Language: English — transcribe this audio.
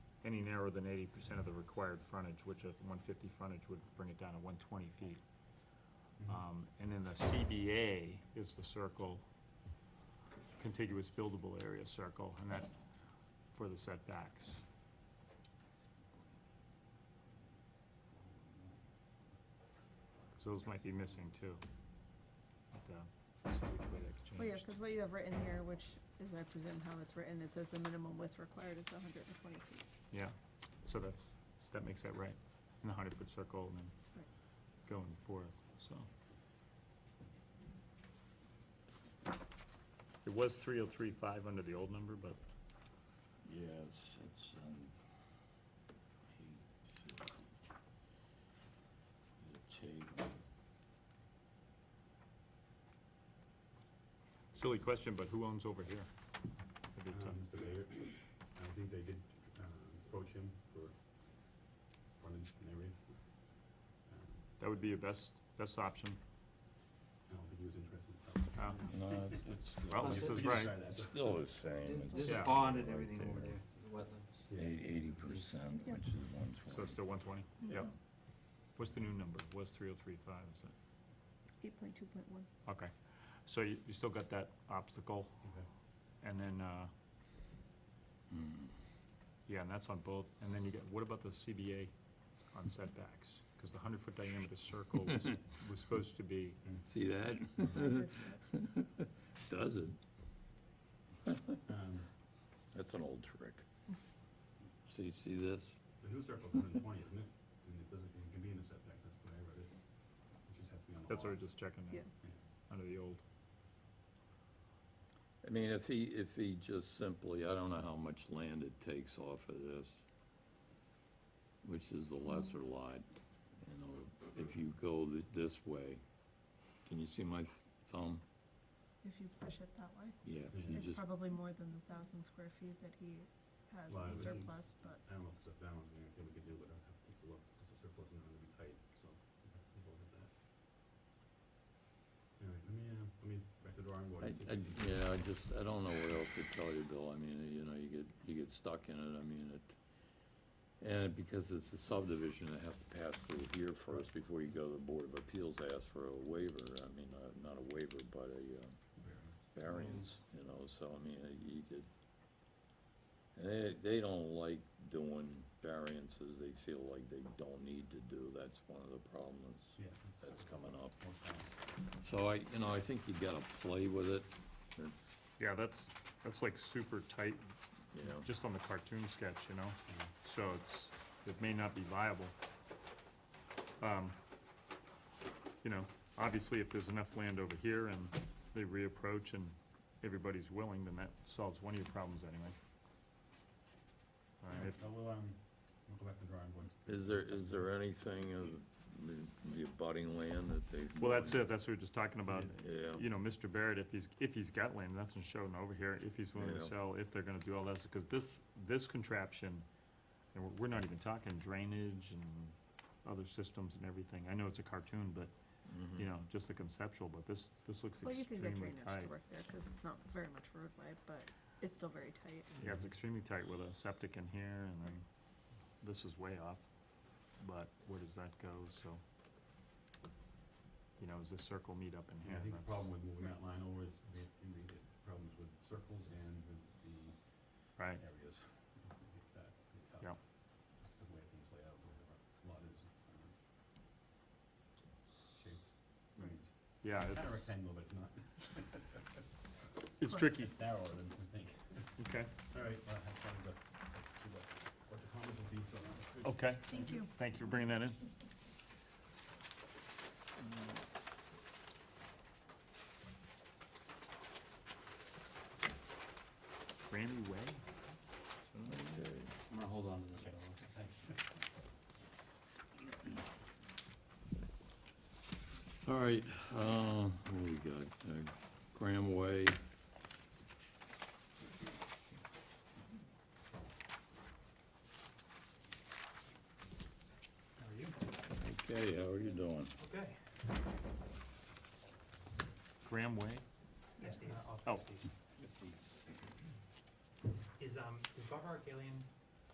any narrower than eighty percent of the required frontage, which a one fifty frontage would bring it down to one twenty feet. Um, and then the CBA is the circle, contiguous buildable area circle, and that, for the setbacks. So those might be missing too. But, uh, see which way that Well, yeah, changed. because what you have written here, which is, I presume, how it's written, it says the minimum width required is hundred and twenty feet. Yeah, so that's, that makes that right, in the hundred foot circle and then Right. going forth, so. It was three oh three five under the old number, but Yes, it's, um, eight, fifty. The table, silly question, but who owns over here? um, That'd be Uh, tough. Mr. Mayor, I think they did uh, approach him for running an area. Um, That would be your best, best option. I don't think he was interested in something. Uh, no, it's- it's. still- Well, this We is can right. try that. It's Still the same. There's- it's There's Yeah. a pond and right everything over there. there, the wetlands. Yeah, Eighty percent, Yeah. which is one twenty. So it's still one twenty? Yep. What's the new number? Was three oh three five, is it? Eight point two point one. Okay, so you, you still got that obstacle, okay. and then, uh, yeah, and that's on both, and then you get, what about the CBA on setbacks? Because the hundred foot diameter circle was, was supposed to be, See that? Mm-hmm. Mm-hmm. Does it? Um, That's an old trick. See, see this? The new circle's one and twenty, isn't it? And it doesn't, it can be in a setback, that's the way I read it. It just has to be on the that's what I law. was just checking, Yeah. there, under the old. I mean, if he, if he just simply, I don't know how much land it takes off of this, which is the lesser lot, you know, if you go th- this way, can you see my th- thumb? If you push it that way, Yeah, if you it's just, probably more than the thousand square feet that he has Well, in I would- surplus, but I don't know if it's a balance, I think we could do, but I'd have to take a look, because the circle's not gonna be tight, so we'll look at that. All right, let me, uh, let me back to the drawing board. I, and see I, if we can- yeah, I just, I don't know what else to tell you, Bill, I mean, you know, you get, you get stuck in it, I mean, it, and because it's a subdivision, it has to pass through here first before you go to the Board of Appeals, ask for a waiver, I mean, uh, not a waiver, but a, uh, variance, you know, so I mean, uh, you could, and they, they don't like doing variances, they feel like they don't need to do, that's one of the problems Yeah. that's coming up. more balance. So I, you know, I think you gotta play with it, it's, Yeah, that's, that's like super tight, you know, just on the cartoon sketch, you know? So it's, it may not be viable. Um, You know, obviously, if there's enough land over here and they reapproach and everybody's willing, then that solves one of your problems anyway. And if, So we'll, um, we'll go back to the drawing boards. is there, is there anything of the- the abutting land that they? well, that's it, that's what we we're just talking about. Yeah, You know, Mr. Barrett, if he's, if he's got land, that's in showing over here, if he's willing to Yeah. sell, if they're gonna do all this, because this, this contraption, and we're, we're not even talking drainage and other systems and everything. I know it's a cartoon, but you mhm. know, just the conceptual, but this, this looks well, you can get extremely drainage tight. to work there, because it's not very much roadway, but it's still very tight. Yeah, it's extremely tight with a septic in here and then this is way off, but where does that go, so? You know, is this circle meet up in Yeah, here? I think the That's- problem with moving that line over is we had, we had problems with circles and with the Right, areas. It's that, it's tough. Yeah. Just the way things lay out, the way the lot is, um, shaped. I mean, it's yeah, kind of it's, rectangle, but it's not. it's tricky, It's narrower than we think. okay, All right, well, I have time to, let's see what, what the comments will be, so. that's good. okay, Thank you. thank you for bringing that in. Grammy Way? Okay. I'm gonna hold on to this. Okay, fellow. thanks. All right, uh, what do we got? Uh, Graham Way. How are you? Okay, how are you doing? Okay. Graham Way? Yes, Dave. Oh. Is, um, is Bob Argalian